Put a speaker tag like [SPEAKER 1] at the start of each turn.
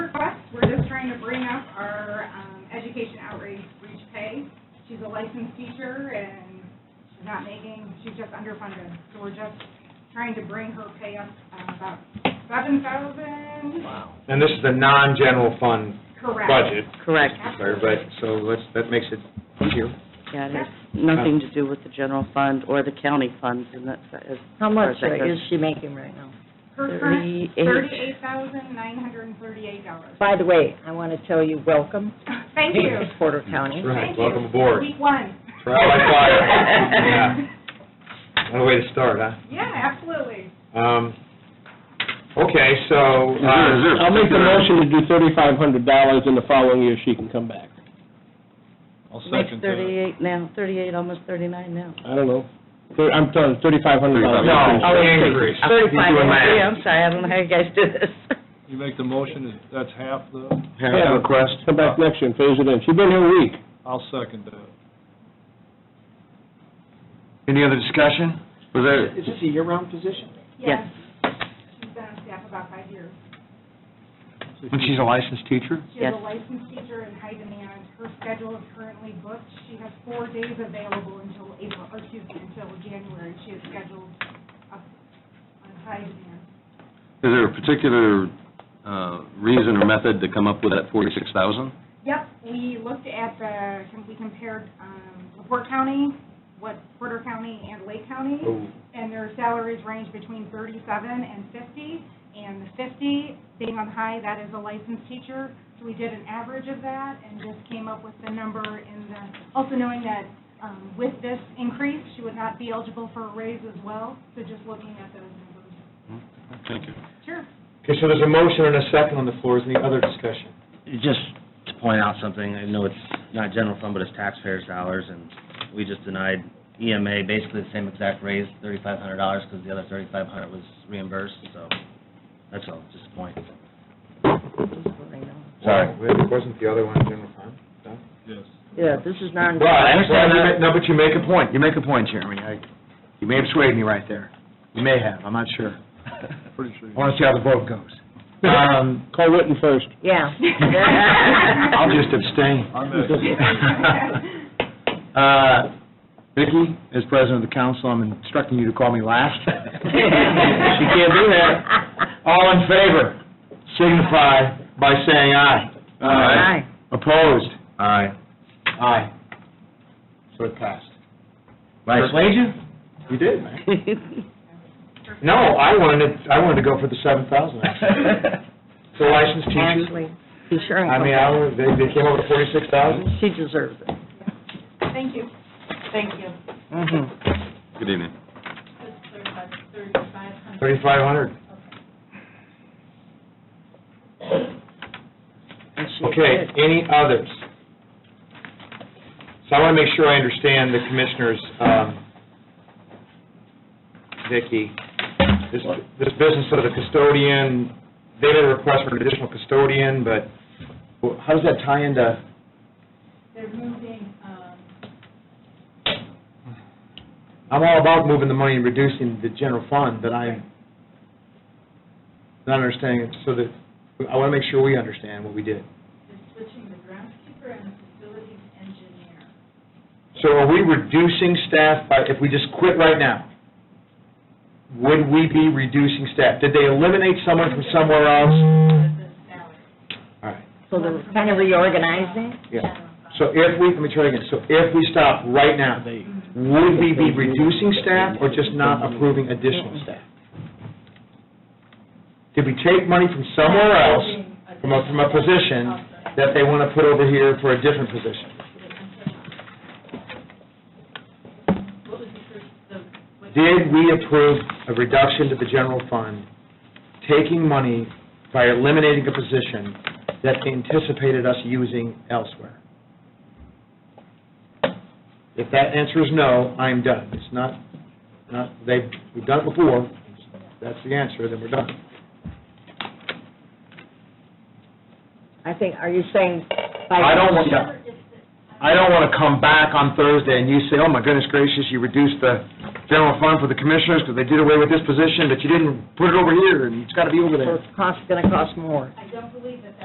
[SPEAKER 1] bring up our um, education outreach reach pay. She's a licensed teacher and she's not making, she's just underfunded. So we're just trying to bring her pay up uh, about seven thousand,
[SPEAKER 2] And this is the non-general fund
[SPEAKER 1] correct.
[SPEAKER 2] budget,
[SPEAKER 3] Correct,
[SPEAKER 2] sorry, but, so let's, that makes it easier.
[SPEAKER 3] yeah, it has nothing to do with the general fund or the county funds, and that's, as
[SPEAKER 4] How much uh,
[SPEAKER 3] Or uh, is that
[SPEAKER 4] is she making right now?
[SPEAKER 1] Her current
[SPEAKER 3] Thirty-eight.
[SPEAKER 1] thirty-eight thousand, nine hundred and thirty-eight dollars.
[SPEAKER 4] By the way, I want to tell you, welcome
[SPEAKER 1] Thank you.
[SPEAKER 4] to Porter County.
[SPEAKER 2] That's right,
[SPEAKER 1] Thank you.
[SPEAKER 2] welcome aboard.
[SPEAKER 1] Week one.
[SPEAKER 2] Trial by fire. Yeah. What a way to start, huh?
[SPEAKER 1] Yeah, absolutely.
[SPEAKER 2] Um, okay, so,
[SPEAKER 5] Is there- is
[SPEAKER 2] uh,
[SPEAKER 5] there-
[SPEAKER 6] I'll make the motion to do thirty-five hundred dollars, and the following year she can come back.
[SPEAKER 7] I'll
[SPEAKER 3] makes
[SPEAKER 7] second that.
[SPEAKER 3] thirty-eight now, thirty-eight, almost thirty-nine now.
[SPEAKER 6] I don't know. Thir- I'm done, thirty-five hundred dollars.
[SPEAKER 2] no, increase.
[SPEAKER 3] Thirty-five,
[SPEAKER 2] You're doing math.
[SPEAKER 3] yeah, I'm sorry, I don't know how you guys do this.
[SPEAKER 7] You make the motion, that's half the,
[SPEAKER 2] Have a request?
[SPEAKER 6] Come back next year and phase it in. She's been here a week.
[SPEAKER 7] I'll second that.
[SPEAKER 2] Any other discussion?
[SPEAKER 5] Was there,
[SPEAKER 2] this a year-round position?
[SPEAKER 3] Yes.
[SPEAKER 1] She's been on staff about five years.
[SPEAKER 2] And she's a licensed teacher?
[SPEAKER 1] She is a
[SPEAKER 3] Yes.
[SPEAKER 1] licensed teacher in high demand. Her schedule is currently booked. She has four days available until April, or excuse me, until January. She is scheduled up on high demand.
[SPEAKER 5] is there a particular uh, reason or method to come up with that forty-six thousand?
[SPEAKER 1] Yep, we looked at the, we compared um, LaPorte County, what Porter County and Lake County, and their salaries range between 37 and 50, and the 50 being on high, that is a licensed teacher, so we did an average of that and just came up with the number in the, also knowing that um, with this increase, she would not be eligible for a raise as well, so just looking at those numbers.
[SPEAKER 5] Thank you.
[SPEAKER 1] Sure.
[SPEAKER 2] Okay, so there's a motion and a second on the floor, is any other discussion?
[SPEAKER 8] Just to point out something, I know it's not general fund, but it's taxpayers' dollars, and we just denied EMA basically the same exact raise, thirty-five hundred dollars, because the other thirty-five hundred was reimbursed, so that's all, just a point. Sorry.
[SPEAKER 2] Wait, Wasn't the other one general fund? No?
[SPEAKER 7] Yes.
[SPEAKER 4] Yeah, this is non,
[SPEAKER 2] Well, I understand
[SPEAKER 8] understand
[SPEAKER 2] you
[SPEAKER 8] that.
[SPEAKER 2] ma- No, but you make a point, you make a point, Jeremy. I- You may have swayed me right there. You may have, I'm not sure.
[SPEAKER 7] Pretty sure.
[SPEAKER 2] I want to see how the vote goes. Um,
[SPEAKER 6] Call Witten first.
[SPEAKER 4] yeah.
[SPEAKER 2] I'll just abstain.
[SPEAKER 7] I'm at-
[SPEAKER 2] Uh, Vicki, as president of the council, I'm instructing you to call me last. She can't do that. All in favor, signify by saying aye.
[SPEAKER 4] Aye.
[SPEAKER 2] Opposed?
[SPEAKER 8] Aye.
[SPEAKER 2] Aye. So it passed.
[SPEAKER 8] Vice-
[SPEAKER 2] Persuade you? You did, man. No, I wanted, I wanted to go for the seven thousand, actually. It's a licensed teacher.
[SPEAKER 4] Actually, be sure
[SPEAKER 2] I mean,
[SPEAKER 4] and
[SPEAKER 2] I, was- they, they came up with forty-six thousand.
[SPEAKER 4] come. She deserves it.
[SPEAKER 1] Thank you. Thank you.
[SPEAKER 5] Good evening.
[SPEAKER 2] Thirty-five hundred.
[SPEAKER 4] And she
[SPEAKER 2] Okay,
[SPEAKER 4] did.
[SPEAKER 2] any others? So I want to make sure I understand the commissioners, um, Vicki, this, this business of the custodian, they did a request for an additional custodian, but wh- how does that tie into?
[SPEAKER 1] They're moving, um,
[SPEAKER 2] I'm all about moving the money and reducing the general fund, but I'm not understanding, it, so that, I want to make sure we understand what we did.
[SPEAKER 9] is switching the groundskeeper and the facilities engineer.
[SPEAKER 2] So are we reducing staff by, if we just quit right now, would we be reducing staff? Did they eliminate someone from somewhere else?
[SPEAKER 9] The salary.
[SPEAKER 2] All right,
[SPEAKER 4] So they're kind of reorganizing?
[SPEAKER 2] yeah. So if we, let me try again, so if we stop right now, would we be reducing staff or just not approving additional staff? Did we take money from somewhere else, from a, from a position, that they want to put over here for a different position?
[SPEAKER 9] What was the first, the, what?
[SPEAKER 2] Did we approve a reduction to the general fund, taking money by eliminating a position that they anticipated us using elsewhere? If that answer is no, I'm done. It's not, not, they've, we've done it before, that's the answer, then we're done.
[SPEAKER 4] I think, are you saying by...
[SPEAKER 2] I don't want, I don't want to come back on Thursday and you say, oh my goodness gracious, you reduced the general fund for the commissioners because they did away with this position, but you didn't put it over here and it's got to be
[SPEAKER 4] So
[SPEAKER 2] over there.
[SPEAKER 4] it's cost, gonna cost more.
[SPEAKER 9] I don't believe